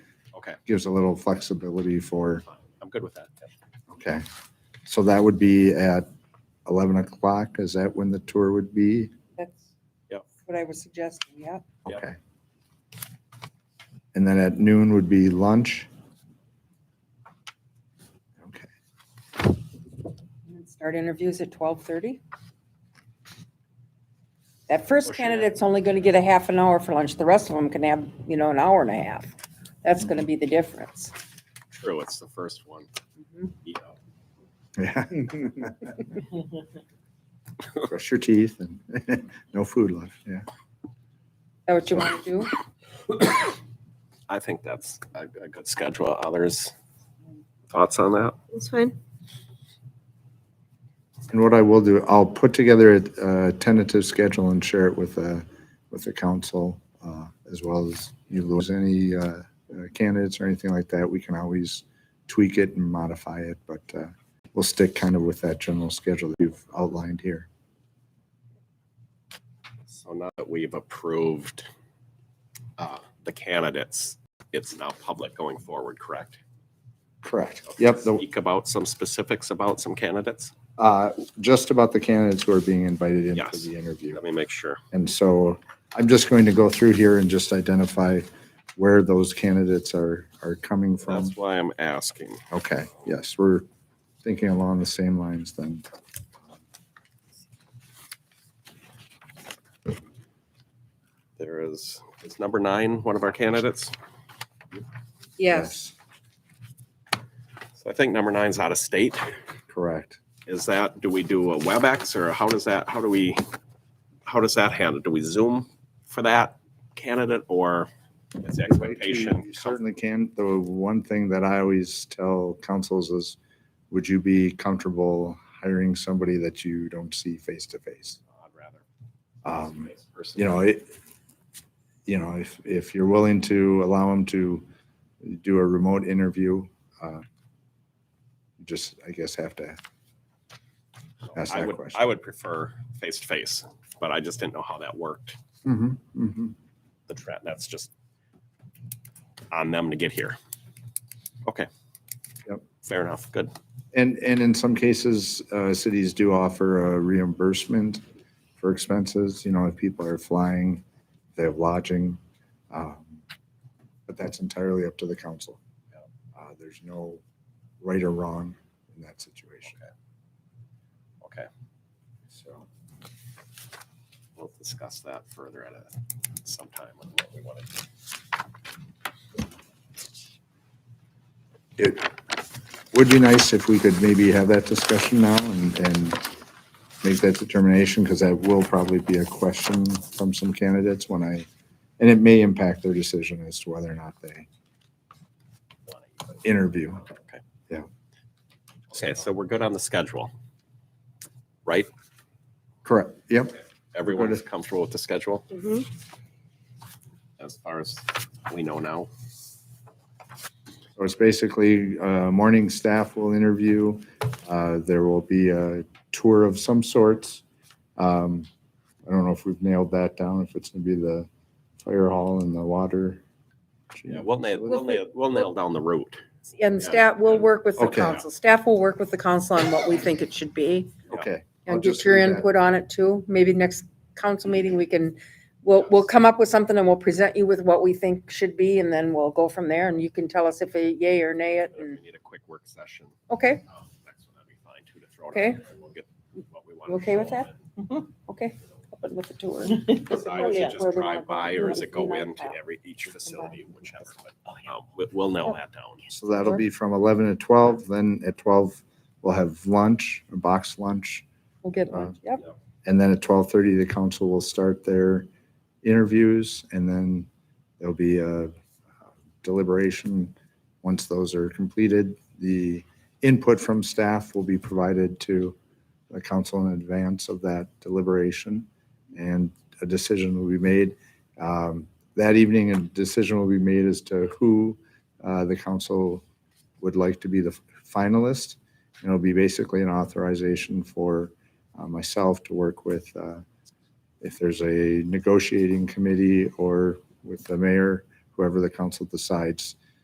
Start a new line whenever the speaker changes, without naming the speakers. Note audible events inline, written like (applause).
Okay.
Gives a little flexibility for,
Fine. I'm good with that.
okay. So that would be at 11 o'clock? Is that when the tour would be?
That's
Yep.
what I was suggesting, yeah.
Yep.
Okay. And then at noon would be lunch? Okay.
And then Start interviews at twelve thirty. That first
Pushing it.
candidate's only gonna get a half an hour for lunch, the rest of them can have, you know, an hour and a half. That's gonna be the difference.
True, it's the first one.
Mhm.
Yeah.
Yeah. Brush your teeth and (laughs) no food left, yeah.
Is that what you wanna do?
I think that's a, a good schedule. Others, thoughts on that?
That's fine.
And what I will do, I'll put together a a tentative schedule and share it with, uh, with the council, uh, as well as you lose any uh, uh, candidates or anything like that. We can always tweak it and modify it, but uh, we'll stick kind of with that general schedule that you've outlined here.
So now that we've approved uh, the candidates, it's now public going forward, correct?
Correct. Yep, the-
Speak about some specifics about some candidates?
uh, just about the candidates who are being invited in for
Yes.
the interview.
Let me make sure.
And so I'm just going to go through here and just identify where those candidates are, are coming from.
That's why I'm asking.
Okay, yes, we're thinking along the same lines then.
There is, is number nine one of our candidates? So I think number nine's out of state.
Correct.
Is that, do we do a WebEx or how does that, how do we, how does that handle? Do we Zoom for that candidate or is the expectation?
You certainly can. The one thing that I always tell councils is, would you be comfortable hiring somebody that you don't see face to face?
I'd
Um,
rather.
you know, it, you know, if, if you're willing to allow them to do a remote interview, uh, you just, I guess, have to ask
I
that
would,
question.
I would prefer face to face, but I just didn't know how that worked.
Mhm, mhm.
The trend, that's just on them to get here. Okay.
Yep.
Fair enough. Good.
And, and in some cases, uh, cities do offer a reimbursement for expenses, you know, if people are flying, they have lodging. um, But that's entirely up to the council. Uh, There's no right or wrong in that situation,
Okay.
so.
We'll discuss that further at a sometime on what we want to do.
It would be nice if we could maybe have that discussion now and, and make that determination, because that will probably be a question from some candidates when I, and it may impact their decision as to whether or not they interview.
Okay.
Yeah.
Okay, so we're good on the schedule. Right?
Correct, yep,
Everyone is comfortable with the schedule
Mm-hmm.
Mhm.
as far as we know now.
so it's basically, uh, morning staff will interview, uh, there will be a tour of some sorts. Um, I don't know if we've nailed that down, if it's gonna be the fire hall and the water.
Yeah, we'll nail, we'll
We'll fi-
nail, we'll nail down the route.
And
Yeah.
staff, we'll work with the
Okay.
council, staff will work with the council on what we think it should be.
Okay. I'll
And
just
get your
leave that.
input on it too. Maybe next council meeting, we can, we'll, we'll come up with something and we'll present you with what we think should be and then we'll go from there and you can tell us if a yay or nay it
If
and,
we need a quick work session,
okay,
um, next one, that'd be fine too, to throw it out
Okay.
there, and we'll get what we want
You
to
okay with
show
that?
and
okay. Up and With the tour.
Decide if
Yeah.
you just drive by or does it go
Yeah.
into every, each facility, whichever, but,
Oh,
um, we- we'll nail that down.
So that'll be from 11 to 12, then at 12, we'll have lunch, a box lunch,
We'll get
Uh,
one, yep.
and then at 12:30, the council will start their interviews, and then there'll be a deliberation. Once those are completed, the input from staff will be provided to the council in advance of that deliberation, and a decision will be made. Um, That evening, a decision will be made as to who uh, the council would like to be the finalist. And it'll be basically an authorization for uh, myself to work with, uh, if there's a negotiating committee or with the mayor, whoever the council decides,